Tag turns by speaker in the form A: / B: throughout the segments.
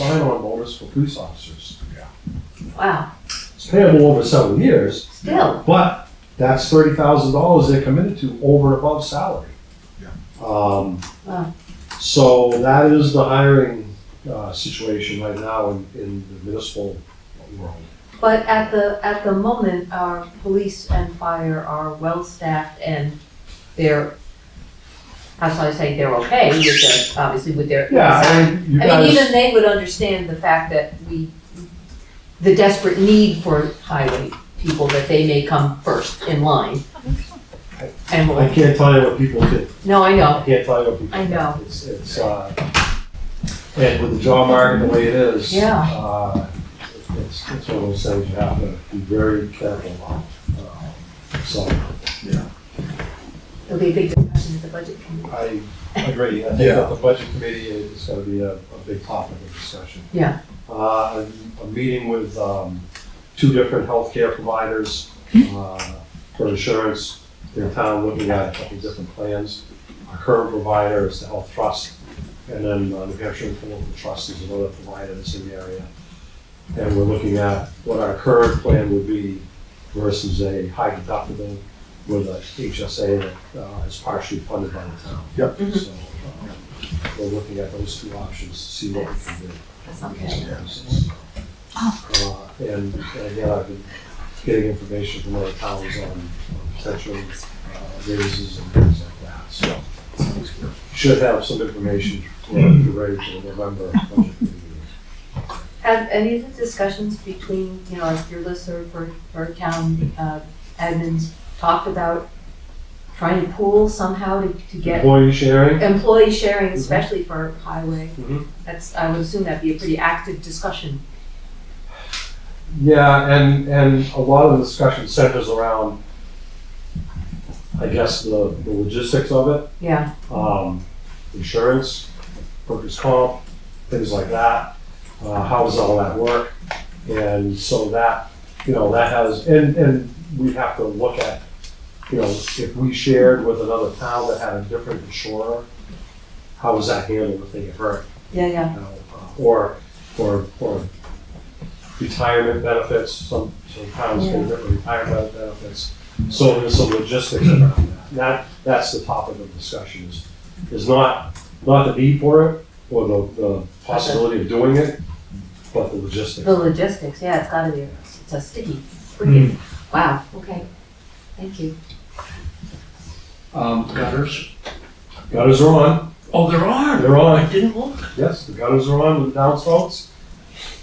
A: sign-on bonus for police officers.
B: Wow,
A: It's payable over several years,
B: still,
A: but that's thirty thousand dollars they're committed to over and above salary. Um,
B: Wow.
A: so that is the hiring, uh, situation right now in, in the municipal world.
B: but at the, at the moment, our police and fire are well-staffed and they're, how shall I say, they're okay with the, obviously with their.
A: Yeah, I mean, you
B: I mean,
A: guys,
B: even they would understand the fact that we, the desperate need for highway people, that they may come first in line. And,
A: I
B: will-
A: can't tell you what people did,
B: no, I
A: I
B: know,
A: can't tell you what people.
B: I
A: did.
B: know.
A: It's, it's, uh, and with the job market the way it is.
B: Yeah.
A: Uh, it's, it's one of those things you have to be very careful about, Um, so.
B: there'll be a big discussion at the budget committee.
A: I agree. I think
C: Yeah.
A: that the budget committee is going to be a, a big topic of discussion.
B: Yeah.
A: Uh, a a meeting with, um, two different healthcare providers,
B: Hmm.
A: uh, for insurance. They're in town looking at a couple of different plans. Our current provider is the Health Trust, and then uh, New Hampshire Affordable Trust is another provider that's in the area. And we're looking at what our current plan would be versus a high deductible with a HSA that uh, is partially funded by the town.
C: Yep.
B: Mhm.
A: So, um, we're looking at those two options to see what we can do.
B: That's okay.
A: Uh, And and again, I've been getting information from other towns on on potential uh, raises and things like that, so. Should have some information for the rate for November budget meeting.
B: Have any of the discussions between, you know, like your listserv for, for town uh, admins talked about trying to pool somehow to, to get
A: Employee sharing?
B: employee sharing, especially for highway?
A: Mhm.
B: That's, I would assume that'd be a pretty active discussion.
A: Yeah, and, and a lot of the discussion centers around, I guess, the the logistics of it.
B: Yeah,
A: um, insurance, workers' comp, things like that. Uh, how does all that work? And so that, you know, that has, and, and we have to look at, you know, if we shared with another town that had a different insurer, how was that handled if they get hurt?
B: yeah, yeah.
A: you know, uh, Or, or, or retirement benefits, some, some towns get different retirement benefits. So there's some logistics around that. That, that's the topic of discussion is, is not, not the need for it or the, the possibility of doing it, but the logistics.
B: The logistics, yeah, it's gotta be, it's a sticky, freaking, wow, okay. Thank you.
C: Um, gutters.
A: Gutters are on,
C: Oh, there are.
A: they're
C: I
A: on.
C: didn't look.
A: Yes, the gutters are on with the downspouts.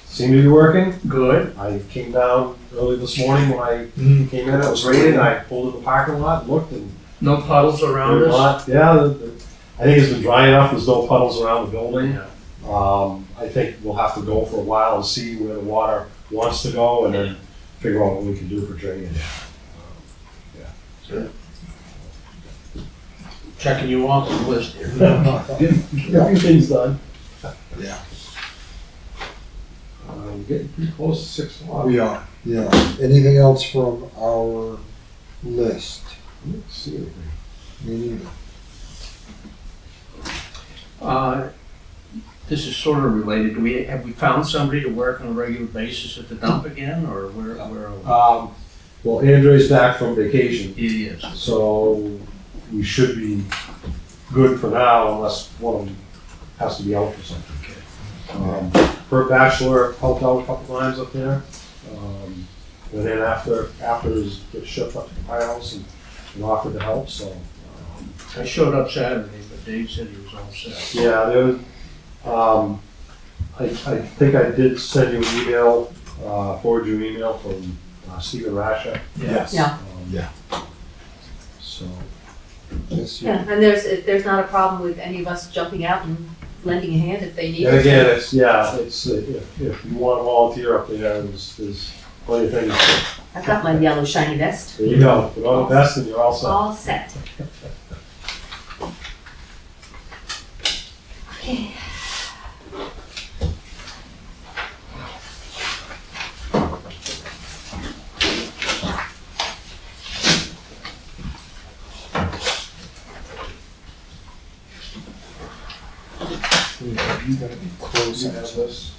A: Seem to be working.
C: Good.
A: I came down early this morning when I
C: Mm,
A: came in, it was raining, I pulled in the parking lot, looked and
C: No puddles around
A: There's
C: us.
A: not- Yeah, the- the- I think it's been dry enough, there's no puddles around the building.
C: Yeah.
A: Um, I think we'll have to go for a while and see where the water wants to go and then figure out what we can do for drainage.
C: Checking you off the list here.
A: Get a few things done.
D: Yeah.
A: Uh, we're getting pretty close to six o'clock.
D: We are, yeah. Anything else from our list?
A: Let's see anything.
D: Me neither.
C: Uh, This is sort of related. Do we, have we found somebody to work on a regular basis at the dump again, or where, where are
A: Um, well, Andre's back from vacation,
C: we? He is.
A: so we should be good for now unless one of them has to be out for something. Um, Bert Bachelor helped out a couple times up there. Um, and then after, after his his shift up to the firehouse and, and offered to help, so. um,
C: I showed up Saturday, but Dave said he was all set.
A: Yeah, there was, um, I, I think I did send you an email, uh, forward you an email from uh, Stephen Rasha.
C: Yes.
B: Yeah.
A: Um,
D: Yeah.
A: So,
D: Yes, you-
B: Yeah, and there's, if there's not a problem with any of us jumping out and lending a hand if they need
A: and
B: us.
A: again, it's, yeah, it's, uh, if, if you want to volunteer up there, there's, there's plenty of things. to-
B: I've got my yellow shiny vest,
A: There you go, put on the vest and you're all set.
B: all set. Okay.
D: You're gonna be closing
A: You have this?